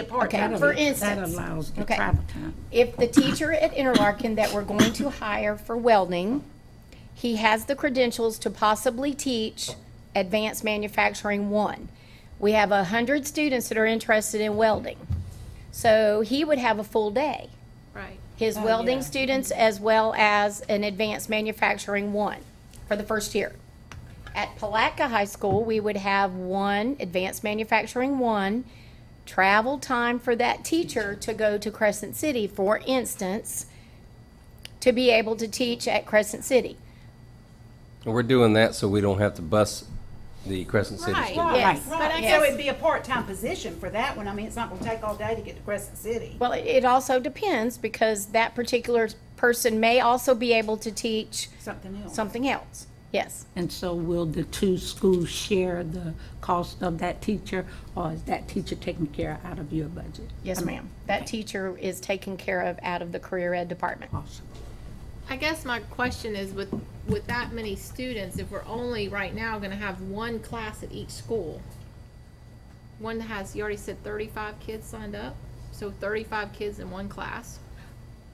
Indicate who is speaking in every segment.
Speaker 1: a
Speaker 2: Okay,
Speaker 1: part-time,
Speaker 2: that
Speaker 1: for
Speaker 2: al- That
Speaker 1: instance.
Speaker 2: allows the
Speaker 3: Okay.
Speaker 2: travel time.
Speaker 3: If the teacher at Interlaken that we're going to hire for welding, he has the credentials to possibly teach advanced manufacturing one. We have a hundred students that are interested in welding. So he would have a full day.
Speaker 1: Right.
Speaker 2: Oh,
Speaker 3: His
Speaker 4: yeah.
Speaker 3: welding students as well as an advanced manufacturing one for the first year. At Palatka High School, we would have one advanced manufacturing one, travel time for that teacher to go to Crescent City, for instance, to be able to teach at Crescent City.
Speaker 5: And We're doing that so we don't have to bus the Crescent City
Speaker 1: Right,
Speaker 5: students.
Speaker 1: right,
Speaker 3: Yes.
Speaker 1: but
Speaker 3: Yes.
Speaker 1: so it'd be a part-time position for that one, I mean, it's not gonna take all day to get to Crescent City.
Speaker 3: Well, it- it also depends because that particular person may also be able to teach
Speaker 1: Something else.
Speaker 3: something else. Yes.
Speaker 2: And so will the two schools share the cost of that teacher, or is that teacher taken care out of your budget?
Speaker 3: Yes, ma'am. That teacher is taken care of out of the career ed department.
Speaker 2: Awesome.
Speaker 4: I guess my question is with, with that many students, if we're only right now gonna have one class at each school, one has, you already said thirty-five kids signed up, so thirty-five kids in one class.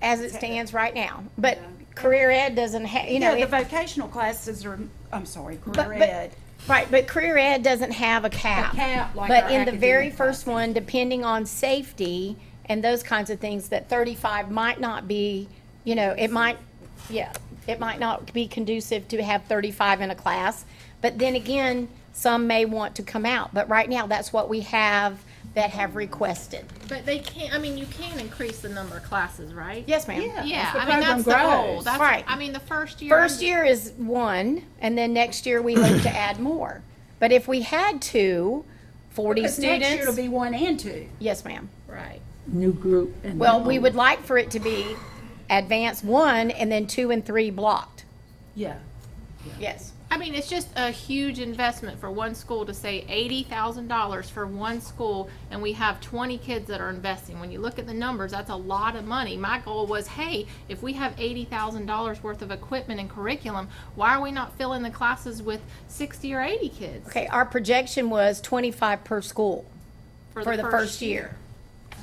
Speaker 3: as it stands right now. But career ed doesn't have, you know,
Speaker 1: Yeah, the
Speaker 3: it-
Speaker 1: vocational classes are, I'm sorry,
Speaker 3: but-
Speaker 1: career
Speaker 3: but-
Speaker 1: ed.
Speaker 3: right, but career ed doesn't have a cap.
Speaker 1: cap like our
Speaker 3: But in the very
Speaker 1: academic
Speaker 3: first one, depending on safety and those kinds of things, that thirty-five might not be, you know, it might, yeah, it might not be conducive to have thirty-five in a class. But then again, some may want to come out, but right now, that's what we have that have requested.
Speaker 4: But they can't, I mean, you can increase the number of classes, right?
Speaker 3: Yes, ma'am.
Speaker 4: Yeah, I mean, that's the goal, that's,
Speaker 3: Right.
Speaker 4: I mean, the first year.
Speaker 3: First year is one, and then next year we hope to add more. But if we had to, forty
Speaker 1: Because next year it'll
Speaker 3: students,
Speaker 1: be one and two.
Speaker 3: yes, ma'am.
Speaker 4: Right.
Speaker 2: New group and.
Speaker 3: Well, we would like for it to be advanced one and then two and three blocked.
Speaker 1: Yeah.
Speaker 3: Yes.
Speaker 4: I mean, it's just a huge investment for one school to say eighty thousand dollars for one school, and we have twenty kids that are investing. When you look at the numbers, that's a lot of money. My goal was, hey, if we have eighty thousand dollars worth of equipment and curriculum, why are we not filling the classes with sixty or eighty kids
Speaker 3: Okay, our projection was twenty-five per school for the first year.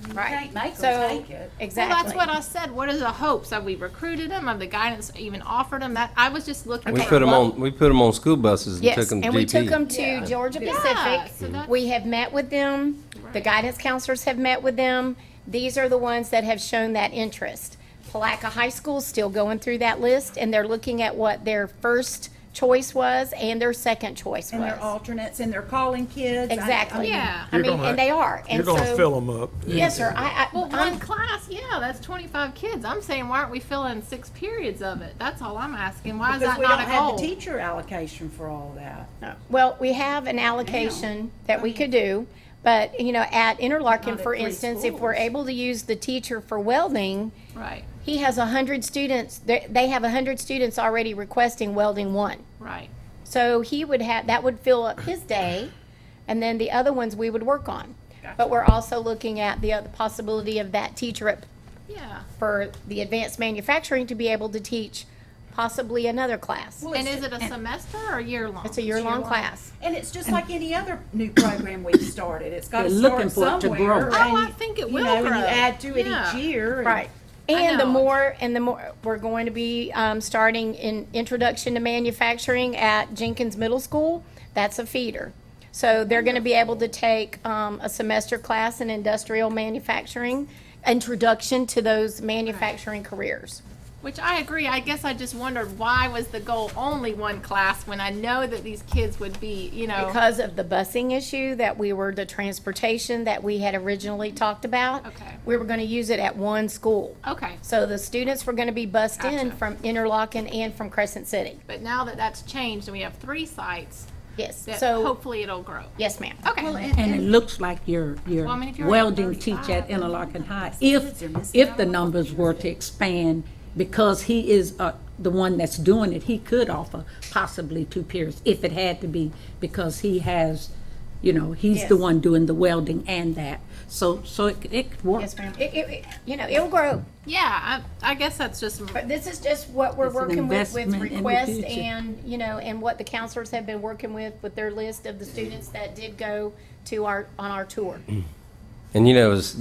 Speaker 1: You
Speaker 3: Right.
Speaker 1: can't make
Speaker 3: So-
Speaker 1: them take it.
Speaker 3: Exactly.
Speaker 4: Well, that's what I said. What are the hopes? Have we recruited them? Have the guidance even offered them? That I was just looking.
Speaker 5: We
Speaker 4: for
Speaker 5: put them
Speaker 4: what-
Speaker 5: on, we put 'em on school buses and took
Speaker 3: Yes,
Speaker 5: them to
Speaker 3: and we took them
Speaker 5: GP.
Speaker 3: to Georgia
Speaker 4: Yeah,
Speaker 3: Pacific.
Speaker 4: so that's-
Speaker 3: We have met with them, the guidance counselors have met with them. These are the ones that have shown that interest. Palaca High School's still going through that list, and they're looking at what their first choice was and their second choice
Speaker 1: And their
Speaker 3: was.
Speaker 1: alternates, and they're calling kids. I- I
Speaker 3: Exactly.
Speaker 1: mean,
Speaker 4: Yeah.
Speaker 3: I
Speaker 6: You're
Speaker 3: mean,
Speaker 6: gonna-
Speaker 3: and they are,
Speaker 6: You're
Speaker 3: and
Speaker 6: gonna
Speaker 3: so,
Speaker 6: fill them up.
Speaker 3: yes, sir, I, I,
Speaker 4: Well,
Speaker 3: I'm-
Speaker 4: one class, yeah, that's twenty-five kids. I'm saying, why aren't we filling six periods of it? That's all I'm asking. Why is
Speaker 1: Because
Speaker 4: that
Speaker 1: we don't
Speaker 4: not a
Speaker 1: have the
Speaker 4: goal?
Speaker 1: teacher allocation for all that.
Speaker 3: Well, we have an allocation that we could do, but, you know, at Interlaken,
Speaker 1: Not at
Speaker 3: for
Speaker 1: three
Speaker 3: instance, if we're
Speaker 1: schools.
Speaker 3: able to use the teacher for welding,
Speaker 4: Right,
Speaker 3: He has a hundred students, they they have a hundred students already requesting welding one.
Speaker 4: right.
Speaker 3: So he would have, that would fill up his day, and then the other ones we would work on. But we're also looking at the other possibility of that teacher at-
Speaker 4: Yeah.
Speaker 3: for the advanced manufacturing to be able to teach possibly another class.
Speaker 1: Well,
Speaker 4: And
Speaker 1: it's-
Speaker 4: is it a semester or a year long?
Speaker 3: It's a year-long class.
Speaker 1: And it's just like any other new program we've started. It's got to
Speaker 2: They're looking
Speaker 1: start
Speaker 2: for it to
Speaker 1: somewhere.
Speaker 2: grow.
Speaker 4: Oh, I
Speaker 1: and,
Speaker 4: think it
Speaker 1: you
Speaker 4: will
Speaker 1: know, and
Speaker 4: grow.
Speaker 1: you add to it
Speaker 4: Yeah.
Speaker 1: each year. and-
Speaker 3: Right.
Speaker 4: I
Speaker 3: And the
Speaker 4: know.
Speaker 3: more, and the more, we're going to be um, starting in introduction to manufacturing at Jenkins Middle School. That's a feeder. So they're going to be able to take um, a semester class in industrial manufacturing, introduction to those manufacturing careers.
Speaker 4: Which I agree. I guess I just wondered why was the goal only one class when I know that these kids would be, you know.
Speaker 3: Because of the busing issue that we were, the transportation that we had originally talked about.
Speaker 4: Okay.
Speaker 3: We were going to use it at one school.
Speaker 4: okay.
Speaker 3: So the students were going to be bused in
Speaker 4: Gotcha.
Speaker 3: from Interlochen and from Crescent City.
Speaker 4: But now that that's changed and we have three sites,
Speaker 3: Yes,
Speaker 4: that
Speaker 3: so,
Speaker 4: hopefully it'll grow.
Speaker 3: yes, ma'am.
Speaker 4: Okay.
Speaker 2: And it looks like your, your
Speaker 4: Well, I mean, if you're at
Speaker 2: welding teacher at
Speaker 4: 35, then
Speaker 2: Interlochen High, if,
Speaker 1: kids are missing
Speaker 2: if the numbers were to expand, because he is uh, the one that's doing it, he could offer possibly two periods, if it had to be, because he has, you know, he's the
Speaker 3: Yes.
Speaker 2: one doing the welding and that. So, so it, it could work.
Speaker 3: Yes, ma'am. It, it, it- you know, it'll grow,
Speaker 4: Yeah, I, I guess that's just
Speaker 3: but this is just what we're
Speaker 2: It's an
Speaker 3: working with, with
Speaker 2: investment in the
Speaker 3: requests
Speaker 2: future.
Speaker 3: and, you know, and what the counselors have been working with, with their list of the students that did go to our, on our tour.
Speaker 5: And you know, as